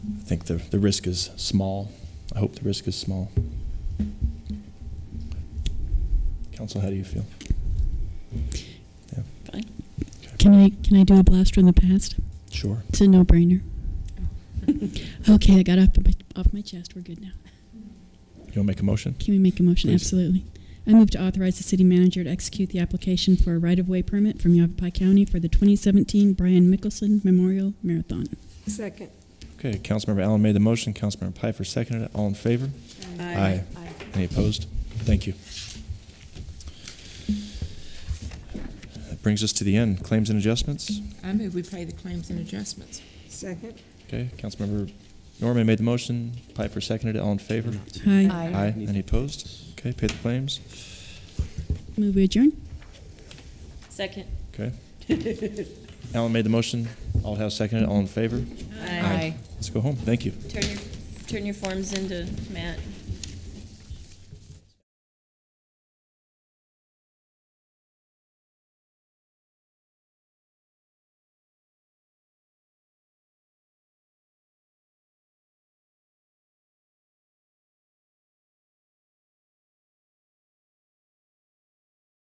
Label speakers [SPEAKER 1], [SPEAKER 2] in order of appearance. [SPEAKER 1] think the, the risk is small. I hope the risk is small. Council, how do you feel?
[SPEAKER 2] Fine.
[SPEAKER 3] Can I can I do a blast from the past?
[SPEAKER 1] Sure.
[SPEAKER 3] It's a no-brainer. okay, I got off my, off my chest. We're good now.
[SPEAKER 1] You want to make a motion?
[SPEAKER 3] Can we make a motion?
[SPEAKER 1] Please.
[SPEAKER 3] Absolutely. I move to authorize the city manager to execute the application for a right-of-way permit from Yavapai County for the 2017 Brian Mickelson Memorial Marathon.
[SPEAKER 4] Second.
[SPEAKER 1] Okay, Councilmember Allen made the motion, Councilmember Piper seconded it. All in favor? Aye. Any opposed? Thank you. That brings us to the end. Claims and adjustments.
[SPEAKER 2] I move we pay the claims and adjustments.
[SPEAKER 4] Second.
[SPEAKER 1] Okay, Councilmember Norman made the motion, Piper seconded it. All in favor?
[SPEAKER 3] Aye.
[SPEAKER 1] Aye. Any opposed? Okay, pay the claims.
[SPEAKER 3] Move we adjourn.
[SPEAKER 2] Second.
[SPEAKER 1] Okay. Allen made the motion, Aldhouse seconded it. All in favor? Let's go home. Thank you.
[SPEAKER 2] Turn your, turn your forms into Matt.